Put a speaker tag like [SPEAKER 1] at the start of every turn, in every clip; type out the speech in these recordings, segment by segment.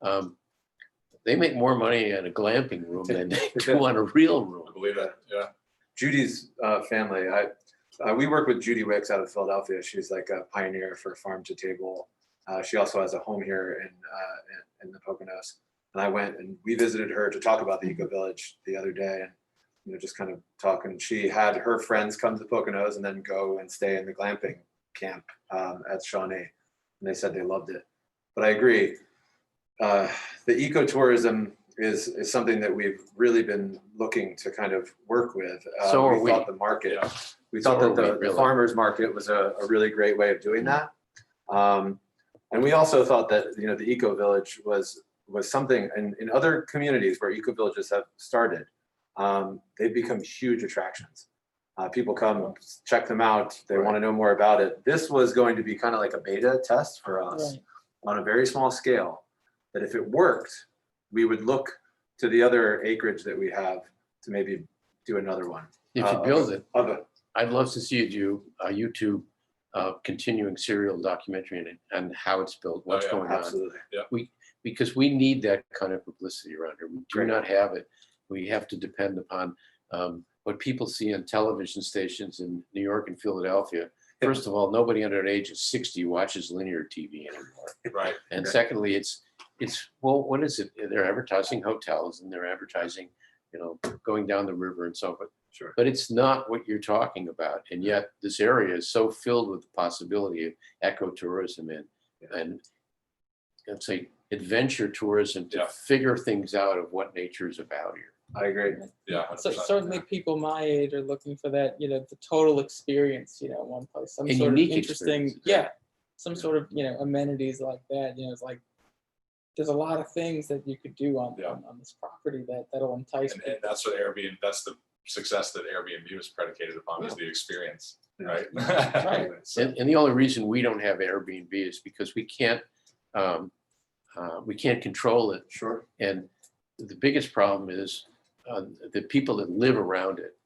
[SPEAKER 1] um, they make more money in a glamping room than they do on a real room.
[SPEAKER 2] Believe it, yeah.
[SPEAKER 3] Judy's uh, family, I, uh, we work with Judy Wicks out of Philadelphia. She's like a pioneer for farm to table. Uh, she also has a home here in, uh, in, in the Poconos. And I went and we visited her to talk about the Eco Village the other day and, you know, just kind of talk. And she had her friends come to the Poconos and then go and stay in the glamping camp um, at Shawnee. And they said they loved it. But I agree. Uh, the ecotourism is, is something that we've really been looking to kind of work with. Uh,
[SPEAKER 1] So are
[SPEAKER 3] thought The market,
[SPEAKER 2] Yeah.
[SPEAKER 3] we thought
[SPEAKER 1] So are
[SPEAKER 3] that
[SPEAKER 1] we,
[SPEAKER 3] the- the
[SPEAKER 1] really.
[SPEAKER 3] farmer's market was a, a really great way of doing that. Um, and we also thought that, you know, the eco village was, was something, and in other communities where eco villages have started, um, they've become huge attractions. Uh, people come, check them out, they want to know more about it. This was going to be kind of like a beta test for us on a very small scale, that if it worked, we would look to the other acreage that we have to maybe do another one
[SPEAKER 1] If you
[SPEAKER 3] Uh,
[SPEAKER 1] build it,
[SPEAKER 3] of it.
[SPEAKER 1] I'd love to see you, a YouTube uh, continuing serial documentary on it and how it's built, what's
[SPEAKER 2] yeah,
[SPEAKER 1] going on.
[SPEAKER 3] Absolutely.
[SPEAKER 1] Because we need that kind of publicity around here. We do
[SPEAKER 3] Great.
[SPEAKER 1] not have it. We have to depend upon um, what people see on television stations in New York and Philadelphia.
[SPEAKER 3] Yeah.
[SPEAKER 1] First of all, nobody under the age of 60 watches linear TV anymore.
[SPEAKER 2] Right,
[SPEAKER 1] And
[SPEAKER 3] Right.
[SPEAKER 1] secondly, it's, it's, well, what is it? They're advertising hotels and they're advertising, you know, going down the river and so forth.
[SPEAKER 3] Sure.
[SPEAKER 1] But it's not what you're talking about. And yet this area is so filled with the possibility of ecotourism and, and let's say adventure tourism to
[SPEAKER 2] Yeah.
[SPEAKER 1] figure things out of what nature is about here.
[SPEAKER 3] I agree.
[SPEAKER 2] yeah.
[SPEAKER 4] So
[SPEAKER 2] 100%.
[SPEAKER 4] certainly people my age are looking for that, you know, the total experience, you know, one place, some
[SPEAKER 1] A
[SPEAKER 4] sort of
[SPEAKER 1] unique
[SPEAKER 4] interesting,
[SPEAKER 1] experience, yeah.
[SPEAKER 4] yeah. Some sort of, you know, amenities like that, you know, it's like, there's a lot of things that you could do on,
[SPEAKER 2] Yeah.
[SPEAKER 4] on, on this property that, that'll entice
[SPEAKER 2] And, and
[SPEAKER 4] people.
[SPEAKER 2] that's what Airbnb, that's the success that Airbnb was predicated upon is the experience, right?
[SPEAKER 4] Right.
[SPEAKER 2] So,
[SPEAKER 1] And, and the only reason we don't have Airbnb is because we can't, um, uh, we can't control it
[SPEAKER 3] Sure.
[SPEAKER 1] And the biggest problem is uh, the people that live around it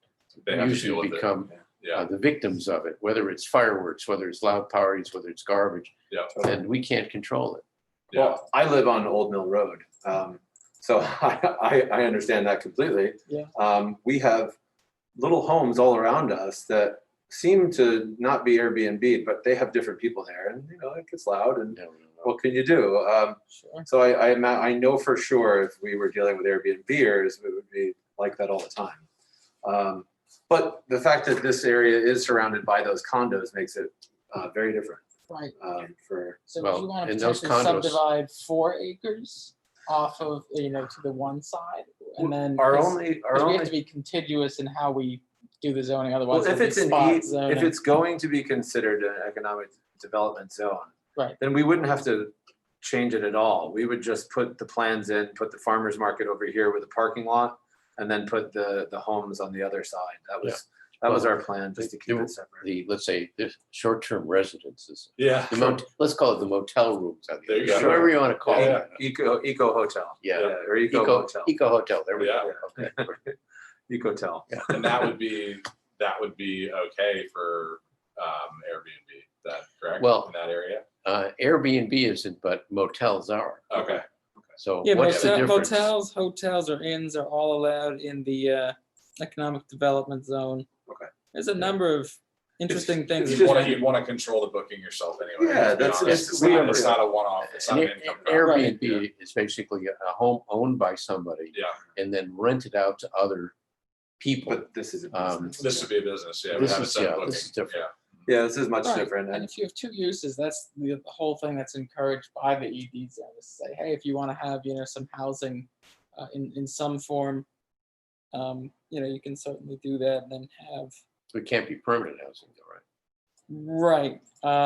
[SPEAKER 2] They have to deal
[SPEAKER 1] usually
[SPEAKER 2] with it,
[SPEAKER 1] become uh,
[SPEAKER 2] yeah,
[SPEAKER 1] the victims of it, whether it's fireworks, whether it's loud parties, whether it's garbage,
[SPEAKER 2] yeah,
[SPEAKER 3] Totally.
[SPEAKER 1] and we can't control it.
[SPEAKER 2] yeah.
[SPEAKER 3] Well, I live on Old Mill Road, um, so I, I, I understand that completely.
[SPEAKER 4] Yeah.
[SPEAKER 3] Um, we have little homes all around us that seem to not be Airbnb, but they have different people there and, you know, it gets loud and
[SPEAKER 1] No, no, no.
[SPEAKER 3] what can you do? Um,
[SPEAKER 4] Sure.
[SPEAKER 3] so I, I, ima- I know for sure if we were dealing with Airbnbers, it would be like that all the time. Um, but the fact that this area is surrounded by those condos makes it, uh, very different,
[SPEAKER 4] Right,
[SPEAKER 3] um, for,
[SPEAKER 4] so
[SPEAKER 1] Well,
[SPEAKER 4] do you want to
[SPEAKER 1] and those
[SPEAKER 4] potentially
[SPEAKER 1] condos-
[SPEAKER 4] subdivide four acres off of, you know, to the one side and then.
[SPEAKER 3] our
[SPEAKER 4] 'cause-
[SPEAKER 3] only, our
[SPEAKER 4] 'cause We
[SPEAKER 3] only.
[SPEAKER 4] have to be contiguous in how we do the zoning,
[SPEAKER 3] Well,
[SPEAKER 4] otherwise.
[SPEAKER 3] if
[SPEAKER 4] it'll be
[SPEAKER 3] it's an,
[SPEAKER 4] spot
[SPEAKER 3] E- if
[SPEAKER 4] zoning.
[SPEAKER 3] it's going to be considered an economic development zone.
[SPEAKER 4] Right.
[SPEAKER 3] Then we wouldn't have to change it at all. We would just put the plans in, put the farmer's market over here with a parking lot. And then put the, the homes on the other side. That was, that was our plan, just to keep
[SPEAKER 1] Well,
[SPEAKER 3] it separate.
[SPEAKER 1] The, let's say, the short-term residences,
[SPEAKER 2] Yeah.
[SPEAKER 1] the mot, let's call it the motel rooms, on the
[SPEAKER 2] There you
[SPEAKER 1] other side,
[SPEAKER 3] go.
[SPEAKER 1] whatever you want to call
[SPEAKER 2] Yeah.
[SPEAKER 1] it.
[SPEAKER 3] E, Eco, eco hotel.
[SPEAKER 1] Yeah.
[SPEAKER 3] Or eco
[SPEAKER 1] Eco, e-,
[SPEAKER 3] hotel,
[SPEAKER 1] eco hotel, there we go.
[SPEAKER 2] Yeah.
[SPEAKER 1] Okay.
[SPEAKER 3] eco hotel.
[SPEAKER 2] And that would be, that would be okay for, um, Airbnb, that, correct?
[SPEAKER 1] Well-
[SPEAKER 2] In that area?
[SPEAKER 1] Uh, Airbnb isn't, but motels are.
[SPEAKER 2] Okay,
[SPEAKER 1] So
[SPEAKER 4] Yeah,
[SPEAKER 1] what's the
[SPEAKER 4] motel-
[SPEAKER 1] difference?
[SPEAKER 4] motels, hotels, or inns are all allowed in the uh, economic development zone.
[SPEAKER 3] Okay.
[SPEAKER 4] There's a number of interesting things.
[SPEAKER 3] it's
[SPEAKER 2] you
[SPEAKER 3] just-
[SPEAKER 2] wanna, you wanna control the booking yourself anyway.
[SPEAKER 3] Yeah,
[SPEAKER 2] let's be
[SPEAKER 3] that's-
[SPEAKER 2] honest.
[SPEAKER 1] that's-
[SPEAKER 2] It's
[SPEAKER 1] we
[SPEAKER 2] not,
[SPEAKER 1] are-
[SPEAKER 2] it's not a one-off, it's not an
[SPEAKER 1] An
[SPEAKER 2] income.
[SPEAKER 1] Air-
[SPEAKER 2] property.
[SPEAKER 1] Airbnb is basically a home owned by somebody
[SPEAKER 2] Yeah,
[SPEAKER 1] and then rented out to other people.
[SPEAKER 3] But this is. a
[SPEAKER 1] Um,
[SPEAKER 3] business.
[SPEAKER 2] this would be a business, yeah. we
[SPEAKER 1] This
[SPEAKER 2] have a
[SPEAKER 1] is-
[SPEAKER 2] set
[SPEAKER 1] yeah,
[SPEAKER 2] booking,
[SPEAKER 1] this is different.
[SPEAKER 2] yeah.
[SPEAKER 3] Yeah, this is much
[SPEAKER 4] Right,
[SPEAKER 3] different.
[SPEAKER 4] And
[SPEAKER 3] And
[SPEAKER 4] if you have two uses, that's the the whole thing that's encouraged by the ED zone, is say, hey, if you want to have, you know, some housing uh, in, in some form, um, you know, you can certainly do that and then have
[SPEAKER 1] It can't be permanent housing, though, right?
[SPEAKER 4] Right.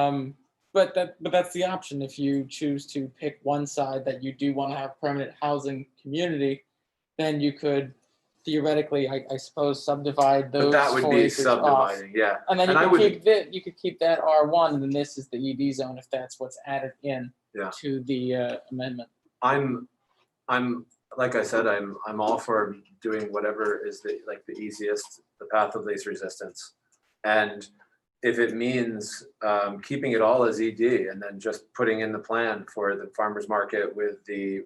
[SPEAKER 4] Um, but that but that's the option if you choose to pick one side that you do want to have permanent housing community, then you could theoretically, I, I suppose, subdivide those.
[SPEAKER 3] But that would
[SPEAKER 4] four
[SPEAKER 3] be
[SPEAKER 4] acres off.
[SPEAKER 3] subdividing, yeah.
[SPEAKER 4] And then
[SPEAKER 3] and I
[SPEAKER 4] you could
[SPEAKER 3] would-
[SPEAKER 4] keep that, you could keep that R one, and then this is the ED zone if that's what's added in
[SPEAKER 3] Yeah.
[SPEAKER 4] to the uh, amendment.
[SPEAKER 3] I'm, I'm, like I said, I'm, I'm all for doing whatever is the, like, the easiest, the path of least resistance. And if it means, E um, keeping it all as ED and then just putting in the plan for the farmer's market with the